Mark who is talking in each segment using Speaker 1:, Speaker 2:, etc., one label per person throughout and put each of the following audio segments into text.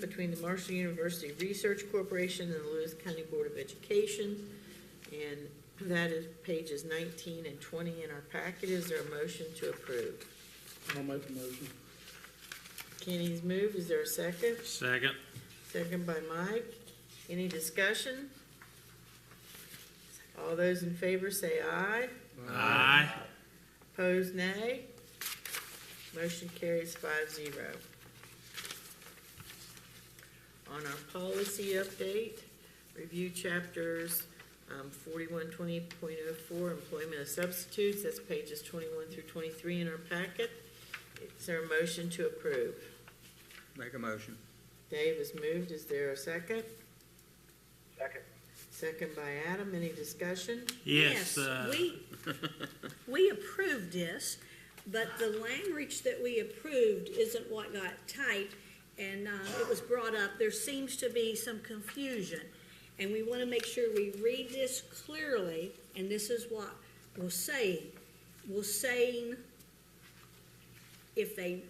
Speaker 1: between the Marshall University Research Corporation and the Lewis County Board of Education. And that is pages nineteen and twenty in our packet. Is there a motion to approve?
Speaker 2: I'll make the motion.
Speaker 1: Kenny's moved. Is there a second?
Speaker 3: Second.
Speaker 1: Second by Mike. Any discussion? All those in favor say aye.
Speaker 3: Aye.
Speaker 1: Opposed, nay. Motion carries five zero. On our policy update, review chapters um, forty-one twenty point oh four, employment of substitutes, that's pages twenty-one through twenty-three in our packet. Is there a motion to approve?
Speaker 4: Make a motion.
Speaker 1: Dave has moved, is there a second?
Speaker 5: Second.
Speaker 1: Second by Adam, any discussion?
Speaker 3: Yes, uh,
Speaker 6: We, we approved this, but the language that we approved isn't what got typed, and uh, it was brought up, there seems to be some confusion. And we want to make sure we read this clearly, and this is what we're saying. We're saying if they,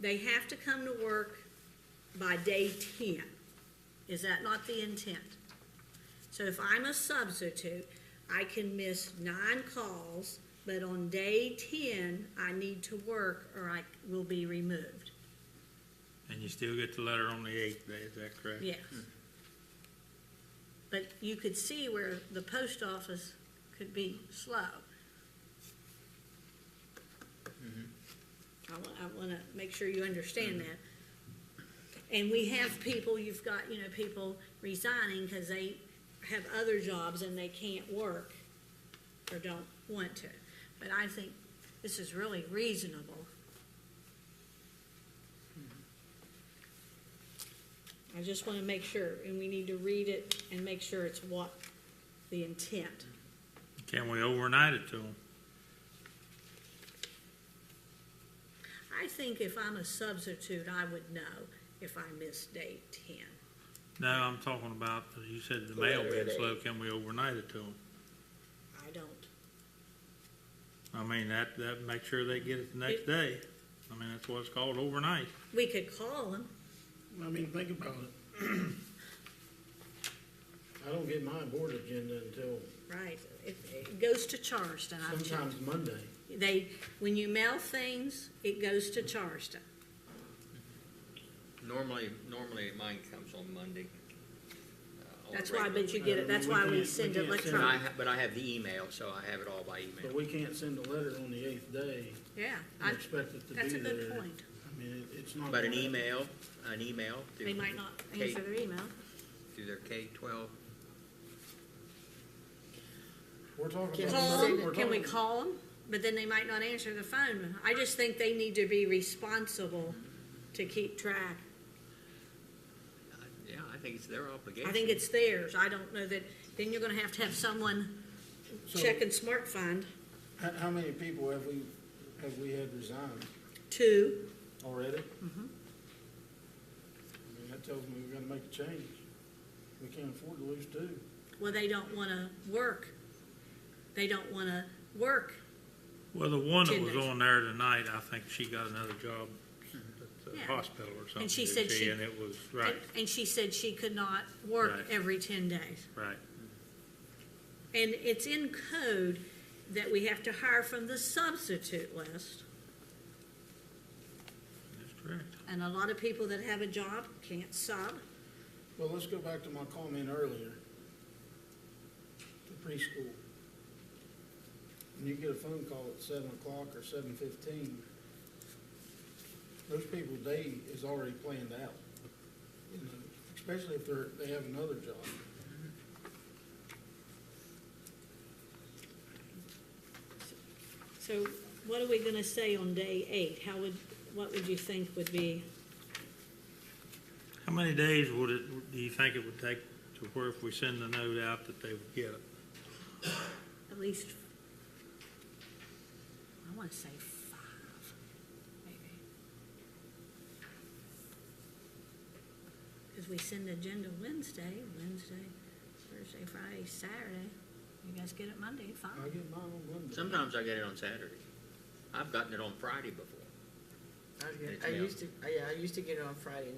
Speaker 6: they have to come to work by day ten. Is that not the intent? So if I'm a substitute, I can miss nine calls, but on day ten, I need to work or I will be removed.
Speaker 3: and you still get the letter on the eighth day, is that correct?
Speaker 6: Yes. But you could see where the post office could be slow. I want, I want to make sure you understand that. And we have people, you've got, you know, people resigning because they have other jobs and they can't work or don't want to. But I think this is really reasonable. I just want to make sure, and we need to read it and make sure it's what the intent.
Speaker 3: Can we overnight it to them?
Speaker 6: I think if I'm a substitute, I would know if I missed day ten.
Speaker 3: No, I'm talking about, you said the
Speaker 1: The
Speaker 3: mail
Speaker 1: letter
Speaker 3: being
Speaker 1: at
Speaker 3: slow, can we overnight it to them?
Speaker 6: I don't.
Speaker 3: I mean, that, that, make sure they get it the next
Speaker 6: It-
Speaker 3: day. I mean, that's what it's called, overnight.
Speaker 6: We could call them.
Speaker 2: I mean, think about it. I don't get my board agenda until
Speaker 6: Right. It, it goes to Charleston. I've checked.
Speaker 2: sometimes Monday.
Speaker 6: They, when you mail things, it goes to Charleston.
Speaker 4: Normally, normally mine comes on Monday. uh, on
Speaker 6: That's
Speaker 4: a
Speaker 6: why,
Speaker 4: regular-
Speaker 6: but you get it, that's
Speaker 2: Uh, We
Speaker 6: why we
Speaker 2: can't-
Speaker 6: send
Speaker 2: we can't send
Speaker 4: But I,
Speaker 6: electronic.
Speaker 4: ha- but I have the email, so I have it all by
Speaker 2: But
Speaker 4: email.
Speaker 2: we can't send a letter on the eighth day
Speaker 6: Yeah, I,
Speaker 2: and expect it to be there.
Speaker 6: that's a good point.
Speaker 2: I mean, it- it's not.
Speaker 4: But an
Speaker 2: gonna-
Speaker 4: email, an email
Speaker 6: They
Speaker 4: through,
Speaker 6: might not
Speaker 4: Kate.
Speaker 6: answer their email.
Speaker 4: through their K twelve.
Speaker 2: We're talking
Speaker 1: Can
Speaker 2: about.
Speaker 6: Call
Speaker 1: we send
Speaker 2: we're
Speaker 6: them, can we
Speaker 2: talking-
Speaker 6: call them? But then they might not answer the phone. I just think they need to be responsible to keep track.
Speaker 4: uh, Yeah, I think it's their obligation.
Speaker 6: I think it's theirs. I don't know that, then you're gonna have to have someone
Speaker 2: So,
Speaker 6: checking smart find.
Speaker 2: How, how many people have we, have we had resign
Speaker 6: Two,
Speaker 2: already? I
Speaker 6: Mm-hmm.
Speaker 2: mean, that tells me we've got to make a change. We can't afford to lose two.
Speaker 6: well, they don't wanna work. They don't wanna work.
Speaker 3: Well, the one that
Speaker 6: Ten
Speaker 3: was
Speaker 6: days.
Speaker 3: on there tonight, I think she got another job at the
Speaker 6: Yeah.
Speaker 3: hospital or something.
Speaker 6: And she
Speaker 3: did
Speaker 6: said she-
Speaker 3: And it was, right,
Speaker 6: And she said she could not work
Speaker 3: Right.
Speaker 6: every ten days.
Speaker 3: right.
Speaker 6: And it's in code that we have to hire from the substitute list.
Speaker 3: That's correct.
Speaker 6: And a lot of people that have a job can't sub.
Speaker 2: Well, let's go back to my comment earlier. The preschool. When you get a phone call at seven o'clock or seven fifteen, those people's day is already planned out. You know, especially if they're, they have another job.
Speaker 6: So what are we gonna say on day eight? How would, what would you think would be?
Speaker 3: How many days would it, do you think it would take to where if we send the note out that they would get it?
Speaker 6: at least, I want to say five, maybe. Because we send agenda Wednesday, Wednesday, Thursday, Friday, Saturday. You guys get it Monday,
Speaker 2: I
Speaker 6: five.
Speaker 2: get mine on Monday.
Speaker 4: Sometimes I get it on Saturday. I've gotten it on Friday before.
Speaker 1: I- I
Speaker 4: Yeah.
Speaker 1: used to, I- yeah, I used to get it on Friday